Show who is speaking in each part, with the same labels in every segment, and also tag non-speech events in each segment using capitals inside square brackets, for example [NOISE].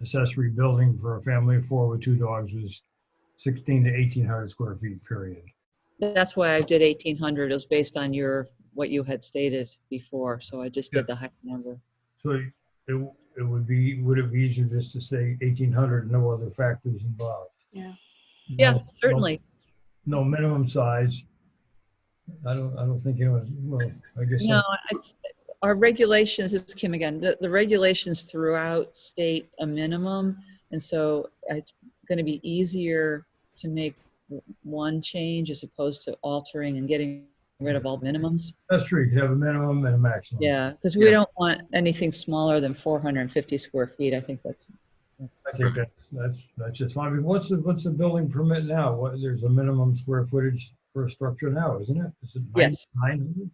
Speaker 1: accessory building for a family of four with two dogs was 16 to 1800 square feet, period.
Speaker 2: That's why I did eighteen hundred. It was based on your, what you had stated before, so I just
Speaker 1: Yeah.
Speaker 2: did the high number.
Speaker 1: So it, it would be, would it be easier just to say 1800, no other factors involved?
Speaker 3: Yeah.
Speaker 2: Yeah,
Speaker 1: No-
Speaker 2: certainly.
Speaker 1: No minimum size. I don't, I don't think anyone's, well, I guess.
Speaker 2: No, I, our regulations, this is Kim again, the, the regulations throughout state a minimum. And so it's gonna be easier to make w- one change as opposed to altering and getting rid of all minimums.
Speaker 1: Accessory could have a minimum and a maximum.
Speaker 2: Yeah, because
Speaker 1: Yeah.
Speaker 2: we don't want anything smaller than four hundred and fifty square feet. I think that's, that's,
Speaker 1: I think that's, that's, that's just fine. I mean, what's the, what's the building permit now? What, there's a minimum square footage for a structure now, isn't it? Is it nine-
Speaker 2: Yes.
Speaker 1: 900?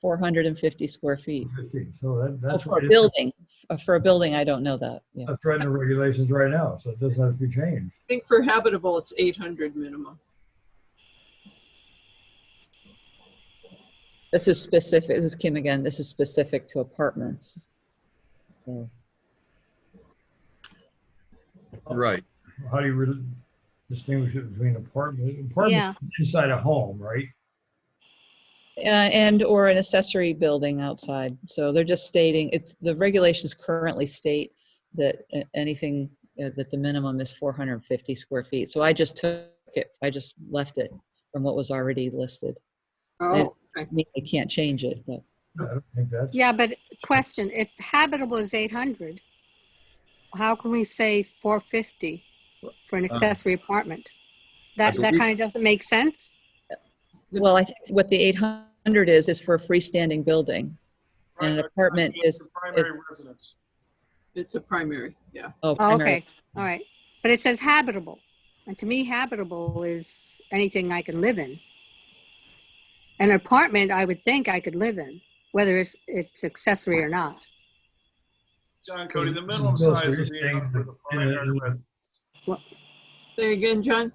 Speaker 2: four hundred and fifty square feet.
Speaker 1: 50. So that,
Speaker 2: Oh,
Speaker 1: that's.
Speaker 2: For
Speaker 1: what
Speaker 2: a
Speaker 1: it-
Speaker 2: building, Uh, for a building, I don't know that, yeah.
Speaker 1: That's right in the regulations right now, so it doesn't have to be changed.
Speaker 4: I think for habitable, it's 800 minimum.
Speaker 2: This is specific, this is Kim again, this is specific to apartments. So,
Speaker 5: Right.
Speaker 1: How do you really distinguish it between apartment,
Speaker 3: Yeah.
Speaker 1: apartment inside a home, right?
Speaker 2: uh, And or an accessory building outside, so they're just stating, it's, the regulations currently state that uh, anything, uh, that the minimum is four hundred and fifty square feet, so I just took it, I just left it from what was already listed.
Speaker 4: Oh, okay.
Speaker 2: I mean, They can't change it, but.
Speaker 1: I don't think that's,
Speaker 3: Yeah, but question, if habitable is eight hundred, how can we say four fifty for an
Speaker 5: Uh,
Speaker 3: accessory apartment? That,
Speaker 5: I
Speaker 3: that
Speaker 5: believe-
Speaker 3: kind of doesn't make sense?
Speaker 2: Well, I think what the 800 is, is for a freestanding building. And an
Speaker 6: Primary-
Speaker 2: apartment
Speaker 6: it's
Speaker 2: is,
Speaker 6: a Primary residence.
Speaker 4: It's a primary, yeah.
Speaker 2: oh,
Speaker 3: Oh,
Speaker 2: primary-
Speaker 3: okay, all right. But it says habitable, and to me habitable is anything I can live in. An apartment, I would think I could live in, whether it's, it's accessory or not.
Speaker 6: John Cody, the
Speaker 1: Mm,
Speaker 6: minimum
Speaker 1: those
Speaker 6: size
Speaker 1: are
Speaker 6: of the
Speaker 1: things
Speaker 6: for the
Speaker 1: that-
Speaker 6: primary residence.
Speaker 4: Say again, John?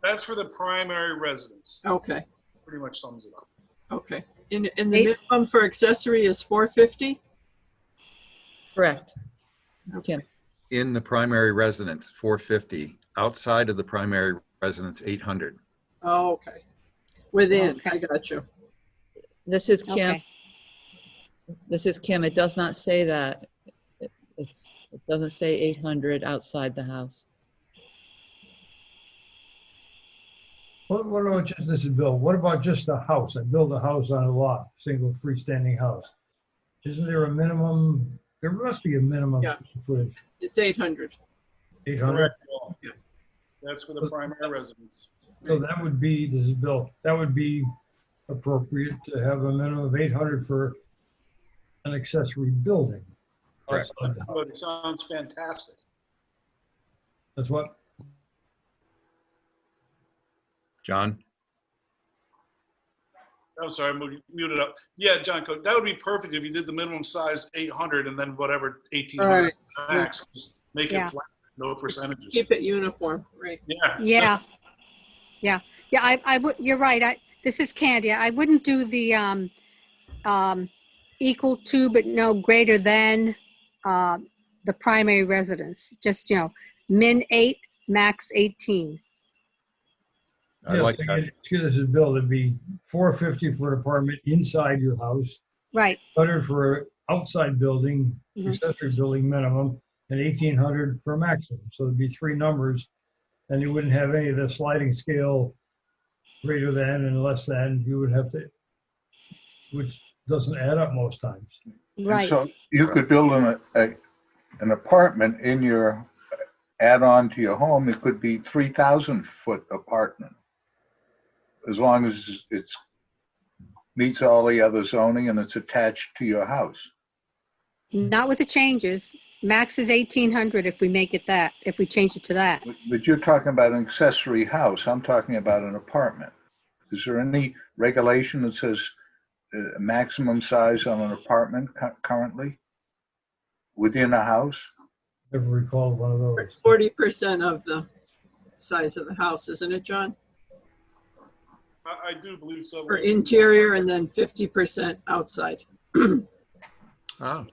Speaker 6: That's for the primary residence.
Speaker 4: Okay,
Speaker 6: Pretty much sums it up.
Speaker 4: okay. And, and the
Speaker 3: Eight-
Speaker 4: minimum for accessory is 450?
Speaker 2: Correct. Kim,
Speaker 5: In the primary residence, 450. Outside of the primary residence, 800.
Speaker 4: Oh, okay. Within,
Speaker 3: Okay.
Speaker 4: I got you.
Speaker 2: this is Kim,
Speaker 3: Okay,
Speaker 2: this is Kim. It does not say that. It- It's, it doesn't say 800 outside the house.
Speaker 1: what, what about just, this is Bill, what about just a house? I build a house on a lot, single freestanding house. Isn't there a minimum, there must be a minimum
Speaker 4: Yeah.
Speaker 1: square footage,
Speaker 4: It's 800.
Speaker 1: eight hundred?
Speaker 6: Correct. Paul.
Speaker 4: Yeah.
Speaker 6: That's for the primary residence.
Speaker 1: So that would be, this is Bill, that would be appropriate to have a minimum of eight hundred for an accessory building.
Speaker 5: Correct.
Speaker 1: outside the house.
Speaker 6: But it sounds fantastic.
Speaker 1: That's what,
Speaker 5: John?
Speaker 6: I'm sorry, I mu- muted up. Yeah, John Cody, that would be perfect if you did the minimum size 800 and then whatever 1800 max. just Make
Speaker 3: Yeah.
Speaker 6: it flat, no percentages.
Speaker 4: Keep it uniform, right.
Speaker 6: Yeah.
Speaker 3: yeah, yeah, yeah, I, I, would- you're right, I, this is Candia, I wouldn't do the, um, um, equal to but no greater than, uh, the primary residence, just, you know, min eight, max eighteen.
Speaker 5: I
Speaker 1: Yeah,
Speaker 5: like
Speaker 1: I
Speaker 5: that.
Speaker 1: mean, Excuse this is Bill, it'd be four fifty for an apartment inside your house,
Speaker 3: Right,
Speaker 1: hundred for an outside building,
Speaker 3: Mhm.
Speaker 1: accessory building minimum, and eighteen hundred for maximum. So it'd be three numbers, and you wouldn't have any of the sliding scale greater than and less than, you would have to, which doesn't add up most times.
Speaker 7: And
Speaker 3: right,
Speaker 7: So you could build an, a, an apartment in your, add-on to your home, it could be three thousand foot apartment. As long as it's, meets all the other zoning and it's attached to your house.
Speaker 3: not with the changes, max is eighteen hundred if we make it that, if we change it to that.
Speaker 7: But- But you're talking about an accessory house, I'm talking about an apartment. Is there any regulation that says uh, maximum size on an apartment cu- currently? Within a house?
Speaker 1: Never recall one of those.
Speaker 4: 40% of the size of the house, isn't it, John?
Speaker 6: [LAUGHS] I, I do believe so.
Speaker 4: For interior and then 50% outside.
Speaker 5: Oh,